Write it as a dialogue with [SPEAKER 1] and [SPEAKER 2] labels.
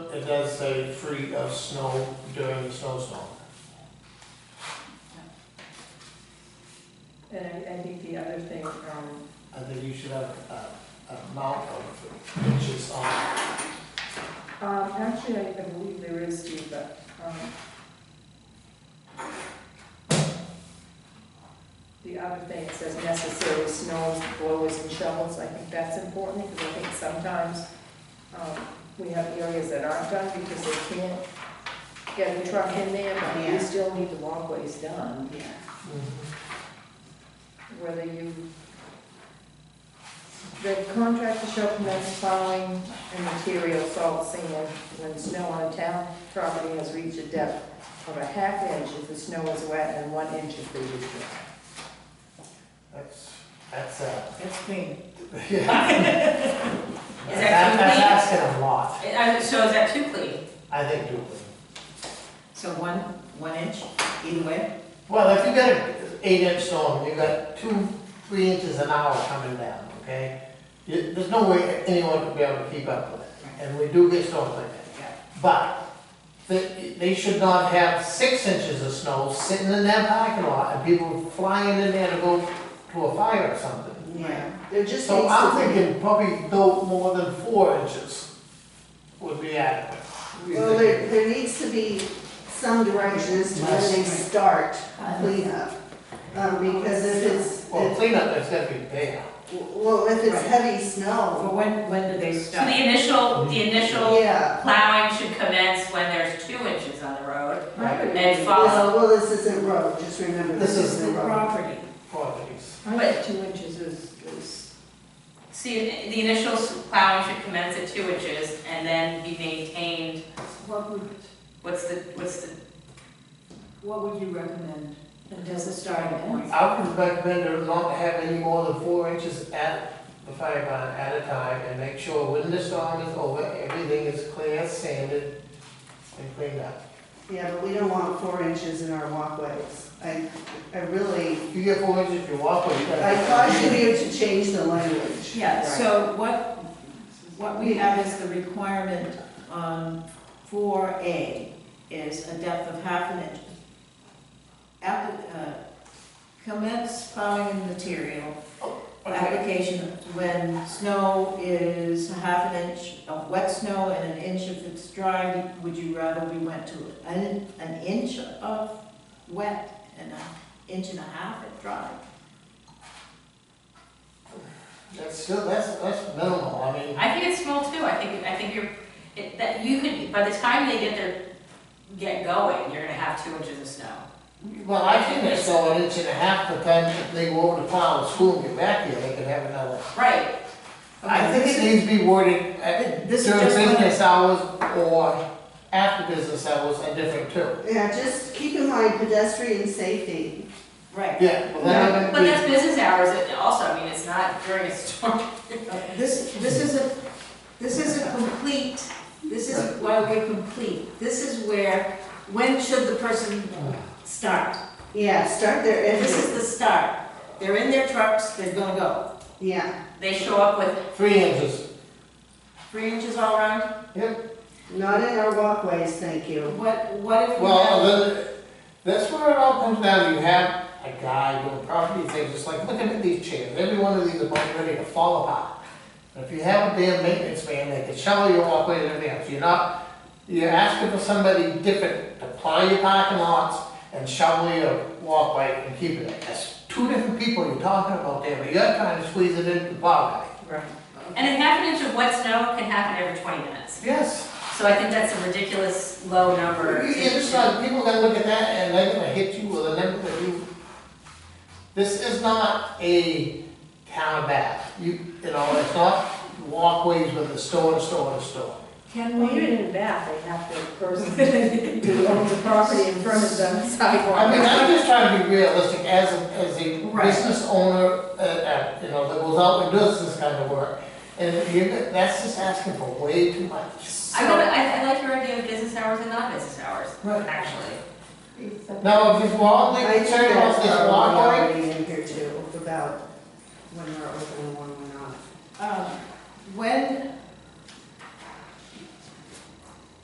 [SPEAKER 1] it does say free of snow during the snowstorm.
[SPEAKER 2] And I, I think the other thing, um,
[SPEAKER 1] I think you should have a, a amount of inches on.
[SPEAKER 2] um, actually, I I believe there is, Steve, but, um, the other thing, it says necessary snows, blowers and shovels, I think that's important, because I think sometimes, um, we have areas that aren't done because they can't get a truck in there, but we
[SPEAKER 3] Yeah.
[SPEAKER 2] still need the walkways done,
[SPEAKER 3] Yeah.
[SPEAKER 2] whether you, the contractor shall commence plowing and material salt sand when snow on a town property has reached a depth of a half inch if the snow is wet and one inch if it is dry.
[SPEAKER 1] That's, that's, uh,
[SPEAKER 3] It's clean.
[SPEAKER 1] yeah.
[SPEAKER 4] Is that
[SPEAKER 1] That's
[SPEAKER 4] complete?
[SPEAKER 1] asking a lot,
[SPEAKER 4] Uh, So is that too clean?
[SPEAKER 1] I think, doing.
[SPEAKER 3] So one, one inch either way?
[SPEAKER 1] Well, if you got an eight inch storm, you got two, three inches an hour coming down, okay? You, there's no way anyone could be able to keep up with it, and we do get storms like that.
[SPEAKER 3] Yeah.
[SPEAKER 1] But they, they should not have six inches of snow sitting in that parking lot and people flying in there to go to a fire or something.
[SPEAKER 3] Yeah.
[SPEAKER 2] There just
[SPEAKER 1] So I'm thinking probably no more than four inches would be adequate.
[SPEAKER 5] Well, there, there needs to be some direction as to when they start cleanup. Um, because if it's,
[SPEAKER 1] Well,
[SPEAKER 5] if-
[SPEAKER 1] cleanup, there's gotta be there.
[SPEAKER 5] well, if it's
[SPEAKER 3] Right.
[SPEAKER 5] heavy snow,
[SPEAKER 3] But when, when do they
[SPEAKER 4] So
[SPEAKER 3] stop?
[SPEAKER 4] the initial, the initial
[SPEAKER 5] yeah.
[SPEAKER 4] plowing should commence when there's two inches on the road
[SPEAKER 2] I would,
[SPEAKER 4] and
[SPEAKER 5] This-
[SPEAKER 4] follow.
[SPEAKER 5] Well, this isn't road, just remember, this
[SPEAKER 1] This is
[SPEAKER 5] isn't road.
[SPEAKER 3] property.
[SPEAKER 1] Properties.
[SPEAKER 2] I think two inches is, is,
[SPEAKER 4] See, the initial plowing should commence at two inches and then be maintained,
[SPEAKER 6] What would,
[SPEAKER 4] what's the, what's the,
[SPEAKER 6] what would you recommend?
[SPEAKER 2] it doesn't start and end.
[SPEAKER 1] I would recommend her not to have any more than four inches at the fire barn at a time and make sure when the storm is over, everything is clear, sanded, and cleaned up.
[SPEAKER 5] Yeah, but we don't want four inches in our walkways. I, I really,
[SPEAKER 1] If you get four inches, you walk over, you gotta.
[SPEAKER 5] I caution you to change the language.
[SPEAKER 3] Yeah, so what, what we have is the requirement on four A is a depth of half an inch. App- uh, Commence plowing material
[SPEAKER 1] Okay,
[SPEAKER 3] application when snow is a half an inch of wet snow and an inch if it's dry, would you rather we went to an, an inch of wet and an inch and a half of dry?
[SPEAKER 1] that's still, that's, that's minimal, I mean,
[SPEAKER 4] I think it's small too, I think, I think you're, it- that you could, by the time they get their, get going, you're gonna have two inches of snow.
[SPEAKER 1] well, I think it's still an inch and a half, but then if they go over the plow and school and get back here, they could have another.
[SPEAKER 4] Right,
[SPEAKER 1] I think it needs to be worded at
[SPEAKER 3] This is
[SPEAKER 1] during
[SPEAKER 3] just one-
[SPEAKER 1] business hours or after business hours are different too.
[SPEAKER 5] Yeah, just keep in mind pedestrian safety.
[SPEAKER 3] Right,
[SPEAKER 1] Yeah, well, then I'm
[SPEAKER 4] but
[SPEAKER 1] gonna be-
[SPEAKER 4] that's business hours and also, I mean, it's not during a storm.
[SPEAKER 3] Uh, this, this is a, this is a complete, this is why we're complete. This is where, when should the person start?
[SPEAKER 5] Yeah, start there
[SPEAKER 3] This
[SPEAKER 5] every,
[SPEAKER 3] is the start. They're in their trucks, they're gonna go.
[SPEAKER 5] yeah,
[SPEAKER 4] They show up with
[SPEAKER 1] Three inches.
[SPEAKER 3] Three inches all around?
[SPEAKER 1] Yep.
[SPEAKER 5] not in our walkways, thank you.
[SPEAKER 3] What, what if we
[SPEAKER 1] Well,
[SPEAKER 3] have?
[SPEAKER 1] the, that's where it all comes down. You have a guy doing property things, it's like, looking at these chairs. Every one of these is about ready to fall apart. And If you have a damn maintenance man, they can shovel your walkway and everything else. You're not, you're asking for somebody different to plow your parking lots and shovel your walkway and keep it. That's two different people you're talking about there, but you're trying to squeeze it into the plow guy.
[SPEAKER 3] Right.
[SPEAKER 4] And a half an inch of wet snow can happen every 20 minutes.
[SPEAKER 1] Yes.
[SPEAKER 4] So I think that's a ridiculous low number.
[SPEAKER 1] You understand, people gonna look at that and they're gonna hit you with a number that you, this is not a town bath. You, you know, it's not walkways with a store, and store, and store.
[SPEAKER 3] Can
[SPEAKER 2] Well,
[SPEAKER 3] we,
[SPEAKER 2] even in Bath, they have to, person who owns the property in front of them sidewalk.
[SPEAKER 1] I mean, I'm just trying to be realistic as, a- as a
[SPEAKER 3] Right.
[SPEAKER 1] business owner, uh, uh, you know, that goes out and does this kind of work. And you, that's just asking for way too much.
[SPEAKER 4] I, would- I, I like your idea of business hours and non-business hours,
[SPEAKER 1] Right.
[SPEAKER 4] actually.
[SPEAKER 1] Now, if you want,
[SPEAKER 5] I
[SPEAKER 1] like,
[SPEAKER 5] think
[SPEAKER 1] turn
[SPEAKER 5] that's uh,
[SPEAKER 1] off this
[SPEAKER 5] probably
[SPEAKER 1] walkway,
[SPEAKER 5] already in here too, about when we're open and when we're not.
[SPEAKER 3] um, when,